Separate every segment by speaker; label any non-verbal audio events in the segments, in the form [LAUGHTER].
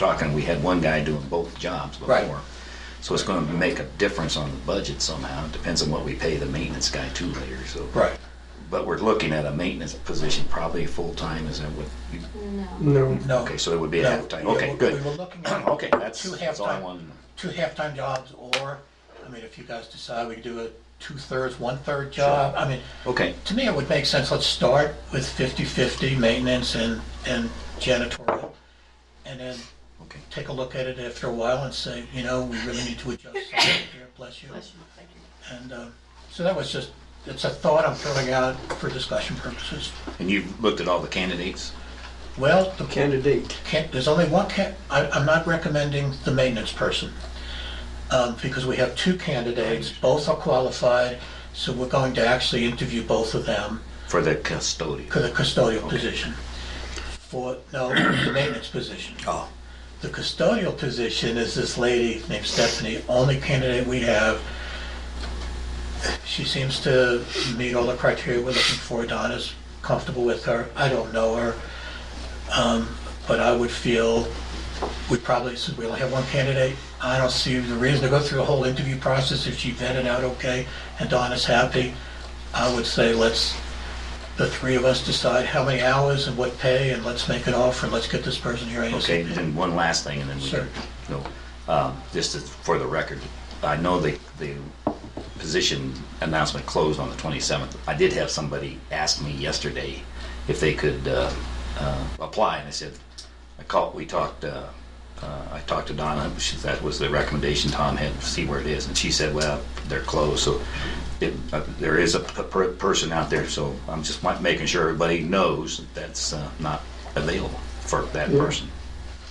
Speaker 1: talking, we had one guy doing both jobs
Speaker 2: Right.
Speaker 1: before. So it's gonna make a difference on the budget somehow. It depends on what we pay the maintenance guy too later, so.
Speaker 2: Right.
Speaker 1: But we're looking at a maintenance position, probably full-time, is that what you,
Speaker 3: No.
Speaker 2: No.
Speaker 1: okay, so it would be a
Speaker 2: No.
Speaker 1: half-time,
Speaker 2: We-
Speaker 1: okay,
Speaker 2: we-
Speaker 1: good.
Speaker 2: We were looking
Speaker 1: [CLEARS THROAT]
Speaker 2: at
Speaker 1: Okay, that's,
Speaker 2: two
Speaker 1: that's all I
Speaker 2: halftime-
Speaker 1: wanted.
Speaker 2: two halftime jobs, or, I mean, if you guys decide we do a two-thirds, one-third job, I mean,
Speaker 1: Okay,
Speaker 2: to me, it would make sense, let's start with 50/50 maintenance and, and janitorial, and then
Speaker 1: okay.
Speaker 2: take a look at it after a while and say, you know, we really need to adjust
Speaker 1: [LAUGHS]
Speaker 2: something here, bless you. And, um, so that was just, it's a thought I'm throwing out for discussion purposes.
Speaker 1: And you've looked at all the candidates?
Speaker 2: Well, the
Speaker 3: Candidate.
Speaker 2: can't, there's only one can, I, I'm not recommending the maintenance person. Um, because we have two candidates, both are qualified, so we're going to actually interview both of them
Speaker 1: For the custodian.
Speaker 2: for the custodial position. For, no, the maintenance position.
Speaker 1: Oh.
Speaker 2: The custodial position is this lady named Stephanie, only candidate we have. She seems to meet all the criteria we're looking for. Don is comfortable with her. I don't know her. Um, But I would feel, we probably, since we only have one candidate, I don't see the reason to go through the whole interview process if she vetted out okay and Don is happy. I would say let's, the three of us decide how many hours and what pay and let's make an offer. Let's get this person here ASAP.
Speaker 1: Okay, and then one last thing, and then we
Speaker 2: Sure.
Speaker 1: can go. Um, Just as- for the record, I know the, the position announcement closed on the 27th. I did have somebody ask me yesterday if they could uh, uh, apply, and I said, I called, we talked, uh, uh, I talked to Donna, she- that was the recommendation Tom had, see where it is, and she said, well, they're closed, so it- uh, there is a p- per- person out there, so I'm just ma- making sure everybody knows that that's uh, not available for that
Speaker 3: Yeah.
Speaker 1: person.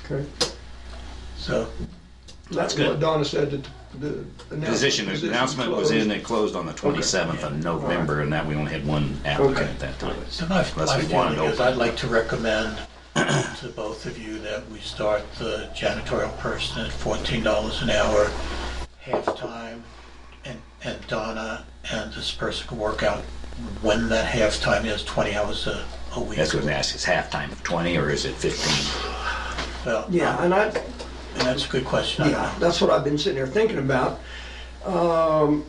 Speaker 3: Okay.
Speaker 2: So,
Speaker 3: That's
Speaker 1: good.
Speaker 3: What Donna said that the. announce-
Speaker 1: Position
Speaker 3: position
Speaker 1: announcement was
Speaker 3: closed.
Speaker 1: in, it closed on the 27th of November, and that we only had one
Speaker 3: Okay.
Speaker 1: applicant at that time.
Speaker 2: so my,
Speaker 1: Unless
Speaker 2: my
Speaker 1: we wanted
Speaker 2: feeling
Speaker 1: to
Speaker 2: is
Speaker 1: open.
Speaker 2: I'd like to recommend to both of you that we start the janitorial person at fourteen dollars an hour, half-time, and, and Donna and this person can work out when that half-time is, twenty hours a, a week.
Speaker 1: That's what I asked, is halftime of 20 or is it 15?
Speaker 2: Well, and
Speaker 3: Yeah, and I,
Speaker 2: that's a good question. I
Speaker 3: yeah,
Speaker 2: don't know.
Speaker 3: that's what I've been sitting there thinking about. Um,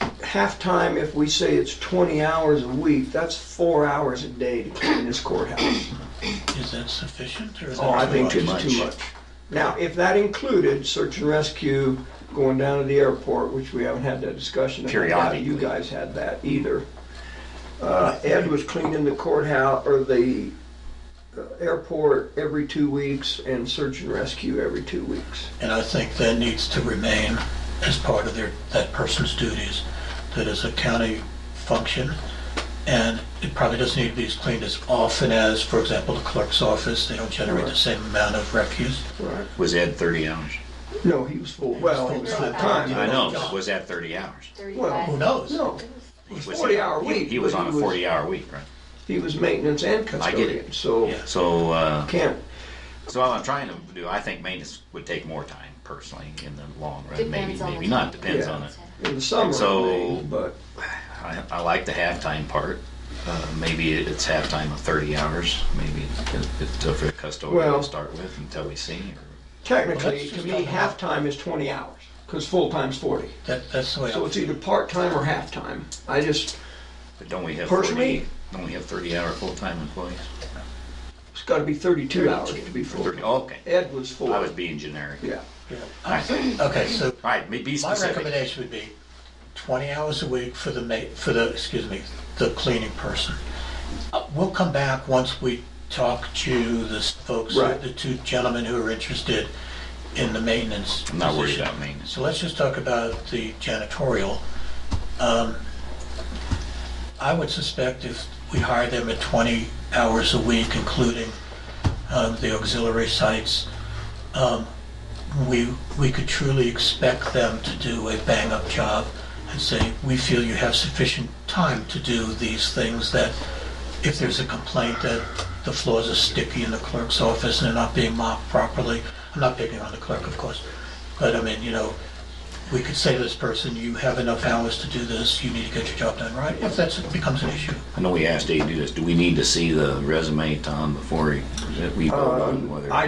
Speaker 3: halftime, if we say it's twenty hours a week, that's four hours a day to clean this courthouse.
Speaker 2: Is that sufficient or is
Speaker 3: Oh, I
Speaker 2: that too
Speaker 3: think
Speaker 2: much?
Speaker 3: it's too much. Now, if that included search and rescue, going down to the airport, which we haven't had that discussion. and I doubt You
Speaker 1: Periodically.
Speaker 3: guys had that either. Uh, Ed was cleaning the courthouse, or the uh, airport every two weeks and search and rescue every two weeks.
Speaker 2: And I think that needs to remain as part of their, that person's duties, that is a county function. And it probably doesn't need to be as cleaned as often as, for example, the clerk's office, they don't generate the same amount of refuse.
Speaker 3: Right.
Speaker 1: Was Ed 30 hours?
Speaker 3: No, he was full, well, he was full time.
Speaker 1: I know, but was that 30 hours?
Speaker 2: Who
Speaker 3: Well,
Speaker 2: knows?
Speaker 3: no,
Speaker 1: He was-
Speaker 3: 40-hour
Speaker 1: he-
Speaker 3: week,
Speaker 1: He was
Speaker 3: but
Speaker 1: on a
Speaker 3: he was-
Speaker 1: 40-hour week, right?
Speaker 3: he was maintenance and
Speaker 1: I get it.
Speaker 3: custodian, so
Speaker 2: Yeah.
Speaker 1: So, uh,
Speaker 3: can't,
Speaker 1: so all I'm trying to do, I think maintenance would take more time personally in the long run, maybe,
Speaker 4: Depends on the
Speaker 1: maybe not,
Speaker 4: time.
Speaker 1: depends
Speaker 3: Yeah.
Speaker 1: on it.
Speaker 3: in the summer,
Speaker 1: So-
Speaker 3: maybe, but.
Speaker 1: I, I like the halftime part. Uh, maybe it's halftime of 30 hours. Maybe it- it's up for the custodian
Speaker 3: Well-
Speaker 1: to start with until we see. Or,
Speaker 2: Well,
Speaker 3: Technically,
Speaker 2: that's
Speaker 3: to
Speaker 2: just
Speaker 3: me,
Speaker 2: not enough.
Speaker 3: halftime is 20 hours, because full-time's 40.
Speaker 2: That, that's the way,
Speaker 3: So it's e-
Speaker 2: I-
Speaker 3: either part-time or half-time. I just,
Speaker 1: but don't we have
Speaker 3: Personally-
Speaker 1: 40? Don't we have 30 hour full time employees?
Speaker 3: it's gotta be 32 hours to be full.
Speaker 1: 30, oh, okay.
Speaker 3: Ed was
Speaker 1: I
Speaker 3: full,
Speaker 1: was being generic.
Speaker 3: yeah.
Speaker 1: All right. All
Speaker 2: okay, so
Speaker 1: right, be- be
Speaker 2: my
Speaker 1: specific.
Speaker 2: recommendation would be twenty hours a week for the ma, for the, excuse me, the cleaning person. Uh, We'll come back once we talk to the folks,
Speaker 3: Right.
Speaker 2: the two gentlemen who are interested in the maintenance.
Speaker 1: I'm not worried
Speaker 2: position.
Speaker 1: about maintenance.
Speaker 2: So let's just talk about the janitorial. Um, I would suspect if we hire them at 20 hours a week, including um, the auxiliary sites, um, we, we could truly expect them to do a bang-up job and say, we feel you have sufficient time to do these things that if there's a complaint that the floors are sticky in the clerk's office and they're not being mopped properly, I'm not picking on the clerk, of course, but I mean, you know, we could say to this person, you have enough hours to do this, you need to get your job done right, if that becomes an issue.
Speaker 1: I know we asked Dave to do this. Do we need to see the resume, Tom, before he- that we vote on
Speaker 3: Um,
Speaker 1: whether?
Speaker 3: I